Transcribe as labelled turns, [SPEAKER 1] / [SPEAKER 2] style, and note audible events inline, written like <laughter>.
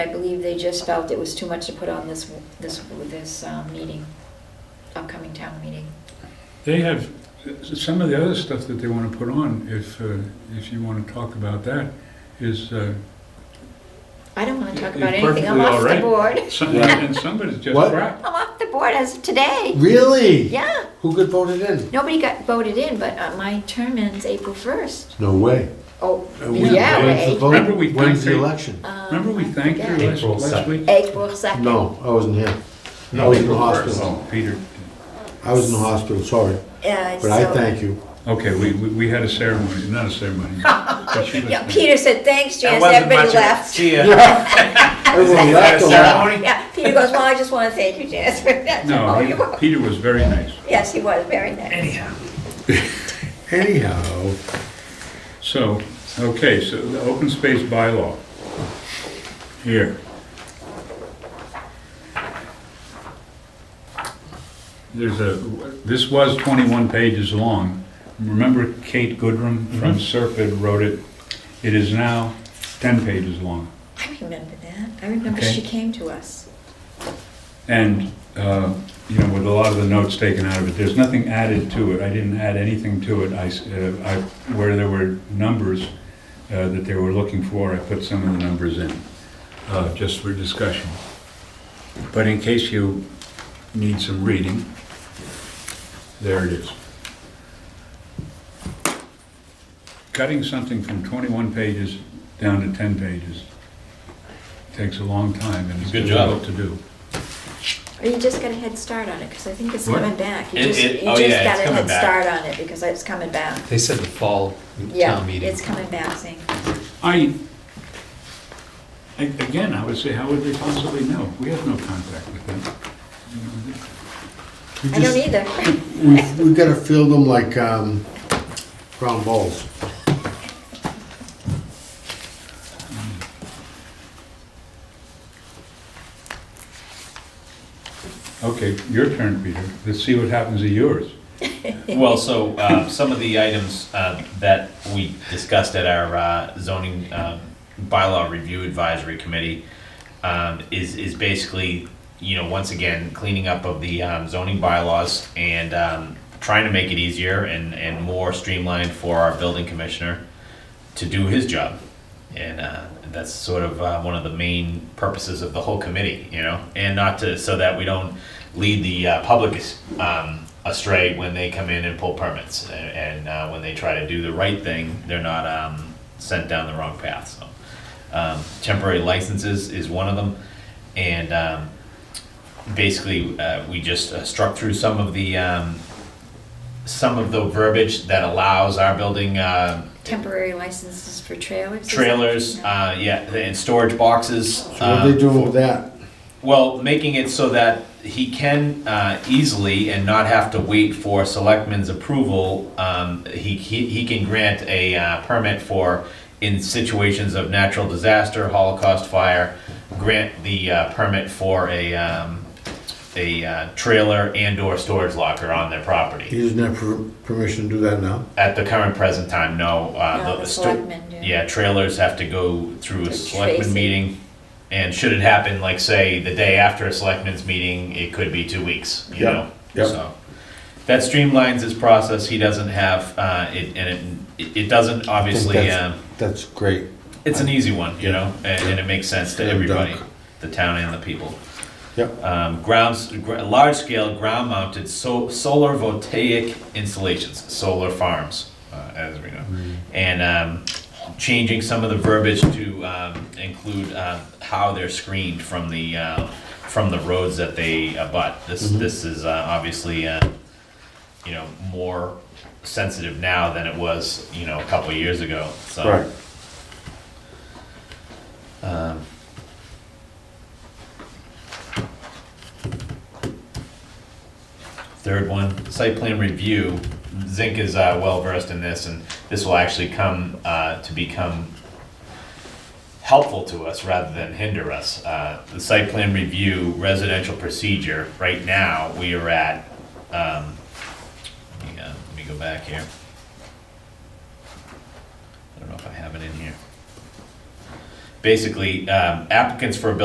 [SPEAKER 1] I believe they just felt it was too much to put on this, this, this um, meeting, upcoming town meeting.
[SPEAKER 2] They have, some of the other stuff that they want to put on, if, uh, if you want to talk about that, is, uh,
[SPEAKER 1] I don't want to talk
[SPEAKER 2] You're
[SPEAKER 1] about anything, I'm
[SPEAKER 2] perfectly
[SPEAKER 1] off
[SPEAKER 2] all
[SPEAKER 1] the
[SPEAKER 2] right.
[SPEAKER 1] board.
[SPEAKER 2] some-
[SPEAKER 3] Yeah.
[SPEAKER 2] and somebody's just
[SPEAKER 3] What?
[SPEAKER 2] crap.
[SPEAKER 1] I'm off the board as of today.
[SPEAKER 3] Really?
[SPEAKER 1] Yeah,
[SPEAKER 3] Who got voted in?
[SPEAKER 1] nobody got voted in, but uh, my term ends April 1st.
[SPEAKER 3] No way.
[SPEAKER 1] Oh,
[SPEAKER 3] Uh, we-
[SPEAKER 1] yeah,
[SPEAKER 3] when's the
[SPEAKER 1] wait.
[SPEAKER 3] vote?
[SPEAKER 2] Remember we
[SPEAKER 3] When's the
[SPEAKER 2] thanked-
[SPEAKER 3] election?
[SPEAKER 1] Um,
[SPEAKER 2] Remember we
[SPEAKER 1] I
[SPEAKER 2] thanked her
[SPEAKER 1] forget.
[SPEAKER 2] last,
[SPEAKER 4] April
[SPEAKER 2] last
[SPEAKER 4] second.
[SPEAKER 2] week?
[SPEAKER 1] April 2nd.
[SPEAKER 3] No, I wasn't here. I
[SPEAKER 4] No,
[SPEAKER 3] was in the
[SPEAKER 4] April first.
[SPEAKER 3] hospital.
[SPEAKER 2] Oh, Peter,
[SPEAKER 3] I was in the hospital, sorry.
[SPEAKER 1] Yeah,
[SPEAKER 3] But I
[SPEAKER 1] Uh, so-
[SPEAKER 3] thank
[SPEAKER 1] <laughs>
[SPEAKER 3] you.
[SPEAKER 2] okay, we, we we had a ceremony, not a ceremony. but
[SPEAKER 1] <laughs>
[SPEAKER 2] she was-
[SPEAKER 1] Yeah, Peter said, thanks,
[SPEAKER 4] That
[SPEAKER 1] Janice,
[SPEAKER 4] wasn't much
[SPEAKER 1] everybody
[SPEAKER 4] of a-
[SPEAKER 1] left.
[SPEAKER 4] See ya.
[SPEAKER 3] Everyone
[SPEAKER 4] You had a
[SPEAKER 3] laughed a lot.
[SPEAKER 4] ceremony?
[SPEAKER 1] <laughs> Yeah, Peter goes, well, I just want to thank you, Janice, for that.
[SPEAKER 2] No,
[SPEAKER 1] Oh,
[SPEAKER 2] he-
[SPEAKER 1] you're welcome.
[SPEAKER 2] Peter was very nice.
[SPEAKER 1] Yes, he was, very nice.
[SPEAKER 4] Anyhow,
[SPEAKER 3] Anyhow,
[SPEAKER 2] So, okay, so the open space bylaw. Here. There's a, this was 21 pages long. Remember Kate Goodrum from Serpide wrote it? It is now 10 pages long.
[SPEAKER 1] I remember that. I remember
[SPEAKER 2] Okay.
[SPEAKER 1] she came to us.
[SPEAKER 2] And, uh, you know, with a lot of the notes taken out of it, there's nothing added to it. I didn't add anything to it. I, s- uh, I- where there were numbers uh, that they were looking for, I put some of the numbers in, uh, just for discussion. But in case you need some reading, there it is. Cutting something from 21 pages down to 10 pages takes a long time and it's
[SPEAKER 5] Good job.
[SPEAKER 2] difficult to do.
[SPEAKER 1] Or you just got a head start on it, because I think it's
[SPEAKER 2] What?
[SPEAKER 1] coming back. You
[SPEAKER 5] It-
[SPEAKER 1] just, you
[SPEAKER 5] it- oh,
[SPEAKER 1] just
[SPEAKER 5] yeah,
[SPEAKER 1] got
[SPEAKER 5] it's
[SPEAKER 1] a
[SPEAKER 5] coming
[SPEAKER 1] head
[SPEAKER 5] back.
[SPEAKER 1] start on it, because it's coming back.
[SPEAKER 5] They said the fall
[SPEAKER 1] Yeah,
[SPEAKER 5] town meeting.
[SPEAKER 1] it's coming back, Zane.
[SPEAKER 2] I, a- again, I would say, how would they possibly know? We have no contact with them.
[SPEAKER 3] we
[SPEAKER 1] I don't
[SPEAKER 3] just,
[SPEAKER 1] either. <laughs>
[SPEAKER 3] we've, we've gotta field them like, um, ground balls.
[SPEAKER 2] Okay, your turn, Peter. Let's see what happens to yours.
[SPEAKER 5] <laughs> Well, so uh, some of the items uh, that we discussed at our uh, zoning um, bylaw review advisory committee um, is, is basically, you know, once again, cleaning up of the um, zoning bylaws and um, trying to make it easier and, and more streamlined for our building commissioner to do his job. And uh, that's sort of uh, one of the main purposes of the whole committee, you know, and not to, so that we don't lead the uh, public um, astray when they come in and pull permits. A- And uh, when they try to do the right thing, they're not um, sent down the wrong path. So um, temporary licenses is one of them. And um, basically, uh, we just uh, struck through some of the, um, some of the verbiage that allows our building uh,
[SPEAKER 1] Temporary licenses for trailers? is that-
[SPEAKER 5] trailers,
[SPEAKER 1] No.
[SPEAKER 5] uh, yeah, and storage boxes.
[SPEAKER 3] So what are
[SPEAKER 5] um,
[SPEAKER 3] they doing with that?
[SPEAKER 5] Well, making it so that he can uh, easily and not have to wait for selectmen's approval, um, he, he he can grant a uh, permit for, in situations of natural disaster, Holocaust fire, grant the uh, permit for a, um, a uh, trailer and/or storage locker on their property.
[SPEAKER 3] He doesn't have per- permission to do that now?
[SPEAKER 5] At the current present time, no. uh,
[SPEAKER 1] No, the
[SPEAKER 5] sto-
[SPEAKER 1] selectmen do.
[SPEAKER 5] Yeah, trailers have to go through
[SPEAKER 1] Through
[SPEAKER 5] a selectman
[SPEAKER 1] tracing.
[SPEAKER 5] meeting. And should it happen, like, say, the day after a selectmen's meeting, it could be two weeks, you
[SPEAKER 3] Yep,
[SPEAKER 5] know?
[SPEAKER 3] yep.
[SPEAKER 5] So That streamlines his process. He doesn't have, uh, it, and it- it, it doesn't
[SPEAKER 3] I think
[SPEAKER 5] obviously,
[SPEAKER 3] that's-
[SPEAKER 5] um,
[SPEAKER 3] That's great.
[SPEAKER 5] it's an easy one, you know? And, and it makes sense to
[SPEAKER 3] Slam dunk.
[SPEAKER 5] everybody, the town and the people
[SPEAKER 3] Yep,
[SPEAKER 5] um, grounds, gr- large-scale ground-mounted so, solar voltaic installations, solar farms, uh, as we know, and um, changing some of the verbiage to um, include uh, how they're screened from the uh, from the roads that they abut. This this is uh, obviously uh, you know more sensitive now than it was you know a couple years ago. So.
[SPEAKER 3] right.
[SPEAKER 5] Third one, site plan review. Zink is uh, well versed in this, and this will actually come uh, to become helpful to us rather than hinder us. Uh, The site plan review residential procedure, right now, we are at, um, hang on, let me go back here. I don't know if I have it in here. basically um, applicants for a building